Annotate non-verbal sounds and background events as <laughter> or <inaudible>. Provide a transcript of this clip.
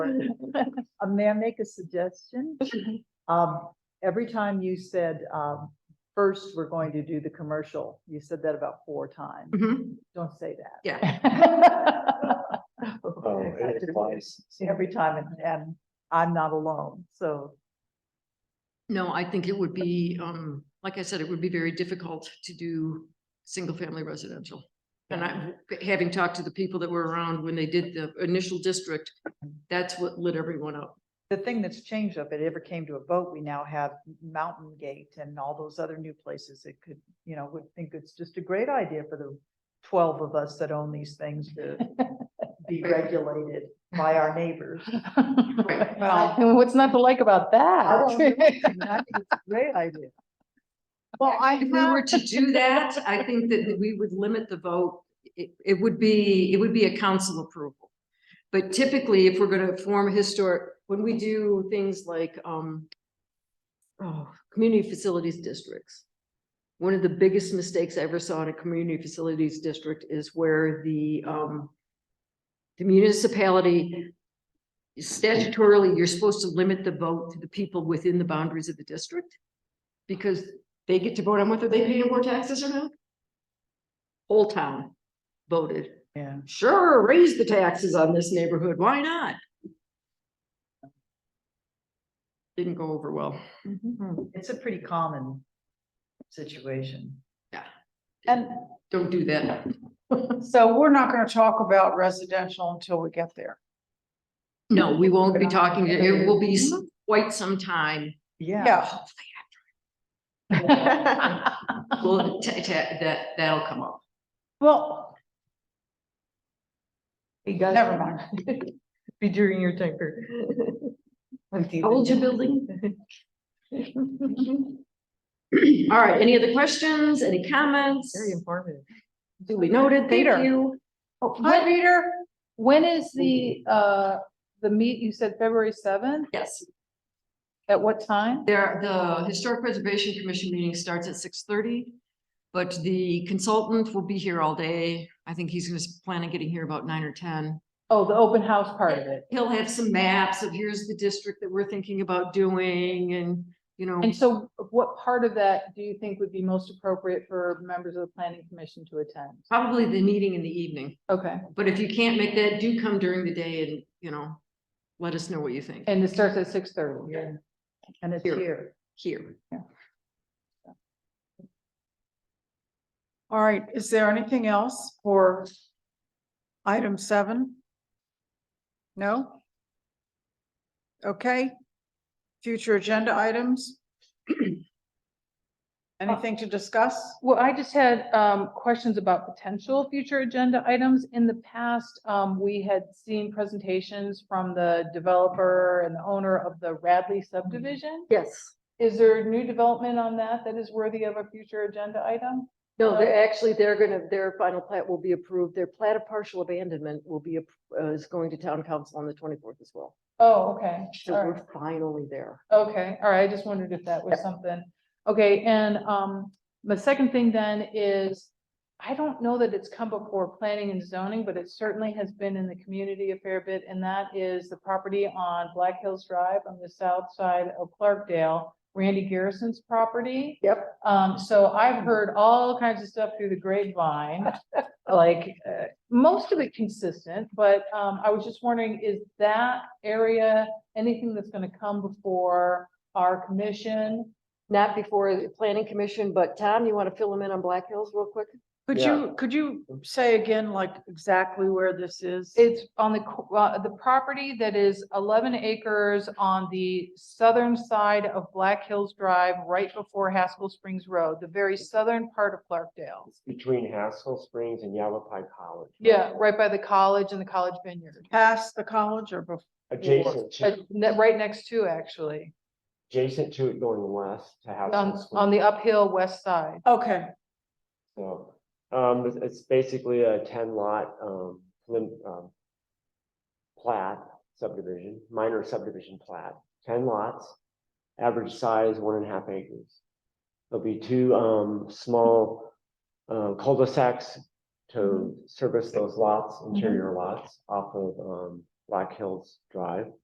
Uh, may I make a suggestion? Um, every time you said, um, first, we're going to do the commercial, you said that about four times. Mhm, Don't say that. <laughs> Yeah, Oh, it applies. Every time, and, and I'm not alone, so, <laughs> no, I think it would be, um, like I said, it would be very difficult to do single-family residential. And I, having talked to the people that were around when they did the initial district, that's what lit everyone up. the thing that's changed, if it ever came to a vote, we now have Mountain Gate and all those other new places that could, you know, would think it's just a great idea for the twelve of us that own these things <laughs> to be regulated by our <laughs> neighbors. <laughs> Right. Well, And what's not to like about I <laughs> Um, don't <laughs> know. I that? think it's a Great idea. Well, I If we were to do that, I think that we would limit the vote. It, it would be, it would be a council approval. But typically, if we're gonna form a historic, when we do things like, um, oh, community facilities districts. One of the biggest mistakes I ever saw in a community facilities district is where the, um, the municipality statutorily, you're supposed to limit the vote to the people within the boundaries of the district. Because they get to vote on whether they pay more taxes or not? Whole town voted, Yeah. sure, raise the taxes on this neighborhood, why not? Didn't go over well. Mm-hmm. It's a pretty common situation. And Don't do that. so we're not gonna talk about residential until we get there. No, we won't be talking, it will be s- quite some time. Yeah. Yeah. <laughs> <laughs> Well, ta- ta- that, that'll come up. Well, You guys- never mind. <laughs> Be during your <laughs> temper. How old's your building? All right, any other questions, any comments? Very informative. Duly noted, thank Peter. you. Hi, Peter. When is the, uh, the meet, you said February seventh? Yes. At what time? There, the Historic Preservation Commission meeting starts at six thirty, but the consultant will be here all day. I think he's gonna s- plan on getting here about nine or ten. Oh, the open house part of it. He'll have some maps of here's the district that we're thinking about doing and, you know, And so what part of that do you think would be most appropriate for members of the planning commission to attend? probably the meeting in the evening. Okay, But if you can't make that, do come during the day and, you know, let us know what you think and it starts at six thirty? Yeah. And it's Here. here. here. All right, is there anything else for item seven? No? Okay. Future agenda items? <clears throat> Anything to discuss? Well, I just had um questions about potential future agenda items. In the past, um, we had seen presentations from the developer and the owner of the Radley subdivision. Yes. Is there new development on that that is worthy of a future agenda item? No, they're actually, they're gonna, their final plat will be approved. Their plat of partial abandonment will be, uh, is going to town council on the twenty-fourth as well. Oh, okay. So All right. we're finally there. Okay, all right, I just wondered if that was something. Okay, and um, the second thing then is, I don't know that it's come before planning and zoning, but it certainly has been in the community a fair bit, and that is the property on Black Hills Drive on the south side of Clarkdale, Randy Garrison's property. Yep. Um, so I've heard all kinds of stuff through the grapevine, like, uh, most of it consistent, but um, I was just wondering, is that area anything that's gonna come before our commission. Not before the planning commission, but Tom, you want to fill them in on Black Hills real quick? Could Yeah. you, could you say again, like exactly where this is? It's on the, co- uh, the property that is eleven acres on the southern side of Black Hills Drive, right before Haskell Springs Road, the very southern part of Clarkdale. Between Haskell Springs and Yavapai College. Yeah, right by the college and the college vineyard, Past the college or before? Adjacent Uh, to, ne- right next to actually, adjacent to it going west to Haskell. on, Springs. on the uphill west side. Okay, So, um, it's- it's basically a ten lot, um, lim, um. Plat subdivision, minor subdivision plat, ten lots, average size one and a half acres. There'll be two, um, small, um, cul-de-sacs Mm-hmm. to service those lots, interior lots off of, um, Black Hills Drive.